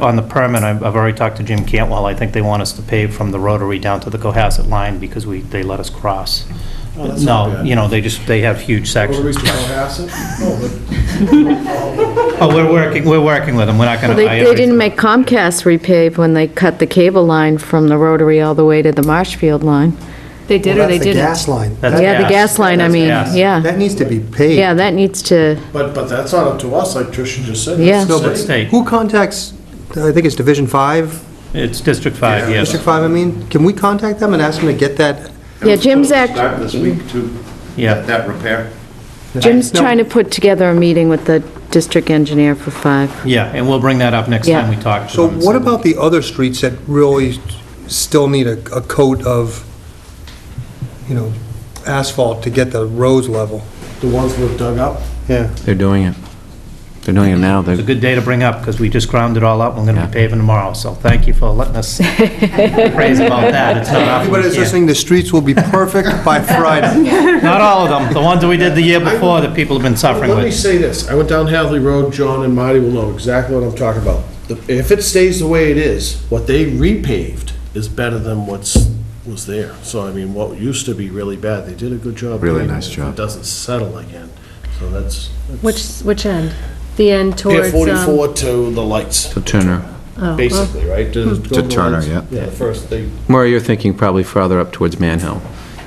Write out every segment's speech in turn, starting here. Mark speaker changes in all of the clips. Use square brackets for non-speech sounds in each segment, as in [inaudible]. Speaker 1: on the permit, I've I've already talked to Jim Cantwell, I think they want us to pave from the rotary down to the Cohasset line because we, they let us cross.
Speaker 2: Oh, that's not
Speaker 1: No,
Speaker 2: bad.
Speaker 1: you know, they just, they have huge sections.
Speaker 2: Rotaries to Cohasset? No,
Speaker 1: Oh, we're working, we're working with them, we're not
Speaker 3: Well,
Speaker 1: gonna.
Speaker 3: They
Speaker 1: I
Speaker 3: they
Speaker 1: already-
Speaker 3: didn't make Comcast repave when they cut the cable line from the rotary all the way to the Marshfield line.
Speaker 4: They did or they
Speaker 5: That's the
Speaker 4: didn't?
Speaker 5: gas line.
Speaker 1: That's
Speaker 3: Yeah, the
Speaker 1: gas.
Speaker 3: gas line, I
Speaker 1: That's
Speaker 3: mean,
Speaker 1: gas.
Speaker 3: yeah.
Speaker 5: That needs to be paid.
Speaker 3: Yeah, that needs to,
Speaker 2: but, but, but that's not up to us, like Tricia just said.
Speaker 3: Yeah.
Speaker 5: No, but
Speaker 1: It's state.
Speaker 5: Who contacts, I think it's Division 5,
Speaker 1: It's District 5, yes.
Speaker 5: District 5, I mean, can we contact them and ask them to get that?
Speaker 3: yeah, Jim's act,
Speaker 6: Start this week to
Speaker 1: Yeah.
Speaker 6: that repair.
Speaker 3: Jim's
Speaker 5: No.
Speaker 3: trying to put together a meeting with the district engineer for five.
Speaker 1: Yeah, and we'll bring that up next
Speaker 3: Yeah.
Speaker 1: time we talk. to
Speaker 5: So
Speaker 1: them and
Speaker 5: what
Speaker 1: see-
Speaker 5: about the other streets that really still need a a coat of, you know, asphalt to get the roads level?
Speaker 2: The ones that were dug up?
Speaker 5: Yeah.
Speaker 7: They're doing it. They're doing it now.
Speaker 1: It's a
Speaker 7: They're-
Speaker 1: good day to bring up, because we just ground it all up, we're gonna
Speaker 7: Yeah.
Speaker 1: be paving tomorrow, so thank you for letting
Speaker 3: [laughs]
Speaker 1: us praise about that. It's not often we
Speaker 5: Everybody's
Speaker 1: can.
Speaker 5: listening, the streets will be perfect by Friday.
Speaker 1: Not all of them, the ones that we did the year before that people have been suffering
Speaker 2: Let me
Speaker 1: with.
Speaker 2: say this, I went down Hadley Road, John and Marty will know exactly what I'm talking about. The- If it stays the way it is, what they repaved is better than what's, was there. So I mean, what used to be really bad, they did a good job.
Speaker 7: Really
Speaker 2: doing it.
Speaker 7: nice
Speaker 2: If
Speaker 7: job.
Speaker 2: It doesn't settle again, so that's. that's-
Speaker 4: Which, which end? The end
Speaker 2: Pier
Speaker 4: towards, um,
Speaker 2: 44 to the lights,
Speaker 7: So Turner.
Speaker 4: oh, well,
Speaker 2: basically, right? To
Speaker 7: To Turner, yeah.
Speaker 2: Yeah, the first, they,
Speaker 7: Murray, you're thinking probably farther up towards Manhill.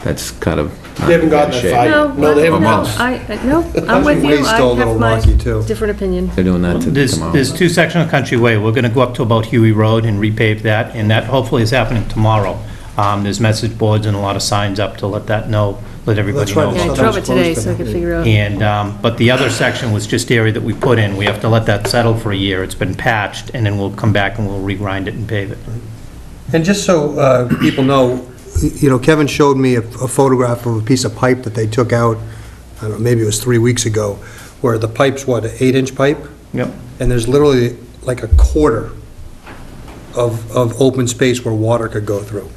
Speaker 7: That's kind of. not
Speaker 2: They haven't gotten that
Speaker 7: shape.
Speaker 2: far.
Speaker 4: no,
Speaker 2: No, they
Speaker 4: no,
Speaker 2: haven't
Speaker 4: no,
Speaker 7: crossed.
Speaker 4: I, I- no, I'm
Speaker 5: Country
Speaker 4: with you.
Speaker 5: Way's
Speaker 4: I
Speaker 5: still a little
Speaker 4: have my
Speaker 5: rocky, too.
Speaker 4: different opinion.
Speaker 7: They're doing that to
Speaker 1: There's,
Speaker 7: tomorrow.
Speaker 1: there's two sections of Country Way, we're gonna go up to about Huey Road and repave that, and that hopefully is happening tomorrow. Um, there's message boards and a lot of signs up to let that know, let everybody
Speaker 5: That's right.
Speaker 1: know.
Speaker 4: Yeah, I
Speaker 1: about
Speaker 4: drove
Speaker 5: Sometimes
Speaker 4: it today
Speaker 5: closed,
Speaker 4: so I could figure out.
Speaker 1: And, um, but the other section was just area that we put in. We have to let that settle for a year. It's been patched, and then we'll come back and we'll regrind it and pave it.
Speaker 5: And just so uh, people know, you know, Kevin showed me a a photograph of a piece of pipe that they took out, I don't know, maybe it was three weeks ago, where the pipe's, what, an eight-inch pipe?
Speaker 1: Yep.
Speaker 5: And there's literally like a quarter of, of open space where water could go through.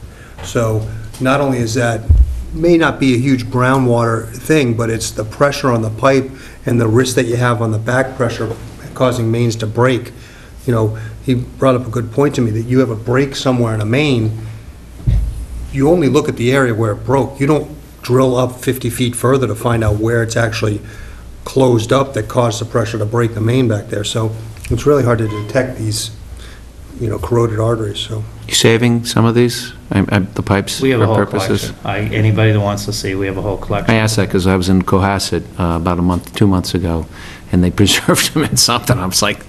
Speaker 5: So not only is that, may not be a huge groundwater thing, but it's the pressure on the pipe and the risk that you have on the back pressure causing mains to break. You know, he brought up a good point to me, that you have a break somewhere in a main, you only look at the area where it broke. You don't drill up 50 feet further to find out where it's actually closed up that caused the pressure to break the main back there. So it's really hard to detect these, you know, corroded arteries, so.
Speaker 7: You saving some of these? I- I- The pipes?
Speaker 1: We have a
Speaker 7: for
Speaker 1: whole
Speaker 7: purposes?
Speaker 1: collection. I, anybody that wants to see, we have a whole
Speaker 7: I
Speaker 1: collection.
Speaker 7: asked that because I was in Cohasset uh, about a month, two months ago, and they [laughs] preserved them in something. I was like,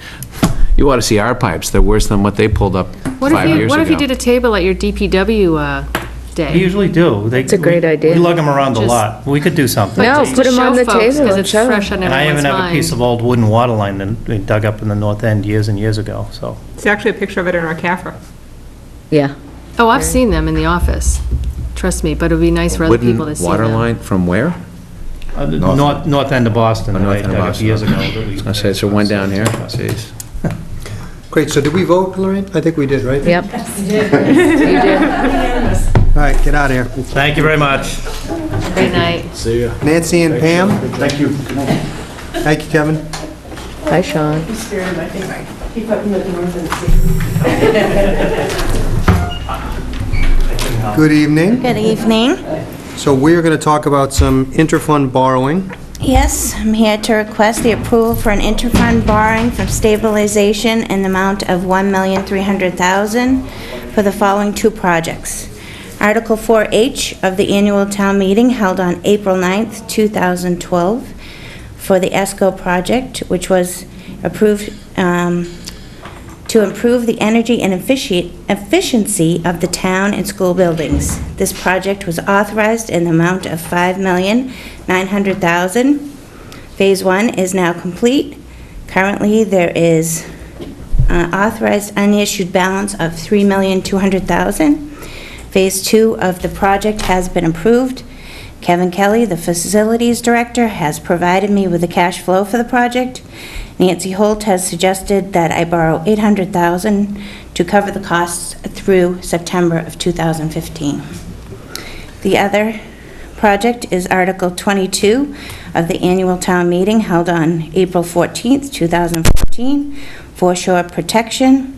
Speaker 7: you ought to see our pipes. They're worse than what they pulled up
Speaker 4: What if
Speaker 7: five
Speaker 4: you,
Speaker 7: years
Speaker 4: what if you did
Speaker 7: ago.
Speaker 4: a table at your DPW, uh,
Speaker 1: We
Speaker 4: day?
Speaker 1: usually do.
Speaker 3: It's a great idea.
Speaker 1: We lug them around a
Speaker 4: Just-
Speaker 1: lot. We could do something.
Speaker 3: No,
Speaker 4: To
Speaker 3: put 'em on
Speaker 4: show
Speaker 3: the
Speaker 4: folks,
Speaker 3: table
Speaker 4: Cause
Speaker 3: and
Speaker 4: it's
Speaker 3: show 'em.
Speaker 4: fresh on
Speaker 1: And I even
Speaker 4: everyone's
Speaker 1: have a piece
Speaker 4: mind.
Speaker 1: of old wooden water line that they dug up in the north end years and years ago, so.
Speaker 8: There's actually a picture of it in our CAFRA.
Speaker 3: Yeah,
Speaker 4: Oh, I've seen them in the office, trust me, but it'd be nice for other people to see them.
Speaker 7: Wooden water line from where?
Speaker 1: Uh, the
Speaker 7: North-
Speaker 1: North, north end of Boston,
Speaker 7: Oh,
Speaker 1: that
Speaker 7: north
Speaker 1: I
Speaker 7: end of
Speaker 1: dug up
Speaker 7: Boston,
Speaker 1: years ago.
Speaker 7: okay.
Speaker 1: that we-
Speaker 7: I said, so one down here? Jeez.
Speaker 5: Great, so did we vote, Lorraine? I think we did, right?
Speaker 3: yep.
Speaker 5: All right, get out of here.
Speaker 1: Thank you very much.
Speaker 4: Great night.
Speaker 2: see ya.
Speaker 5: Nancy and Pam,
Speaker 2: Thank you.
Speaker 5: thank you, Kevin.
Speaker 3: Hi, Sean.
Speaker 5: Good evening.
Speaker 9: Good evening.
Speaker 5: So we're going to talk about some interfund borrowing.
Speaker 9: Yes, I'm here to request the approval for an interfund borrowing from stabilization in the amount of $1,300,000 for the following two projects. Article 4H of the annual town meeting held on April 9th, 2012, for the ESCO project, which was approved um, to improve the energy and effici- efficiency of the town and school buildings. This project was authorized in the amount of $5,900,000. Phase one is now complete. Currently, there is uh, authorized unissued balance of $3,200,000. Phase two of the project has been approved. Kevin Kelly, the facilities director, has provided me with the cash flow for the project. Nancy Holt has suggested that I borrow 800,000 to cover the costs through September of 2015. The other project is Article 22 of the annual town meeting held on April 14th, 2014, foreshore protection.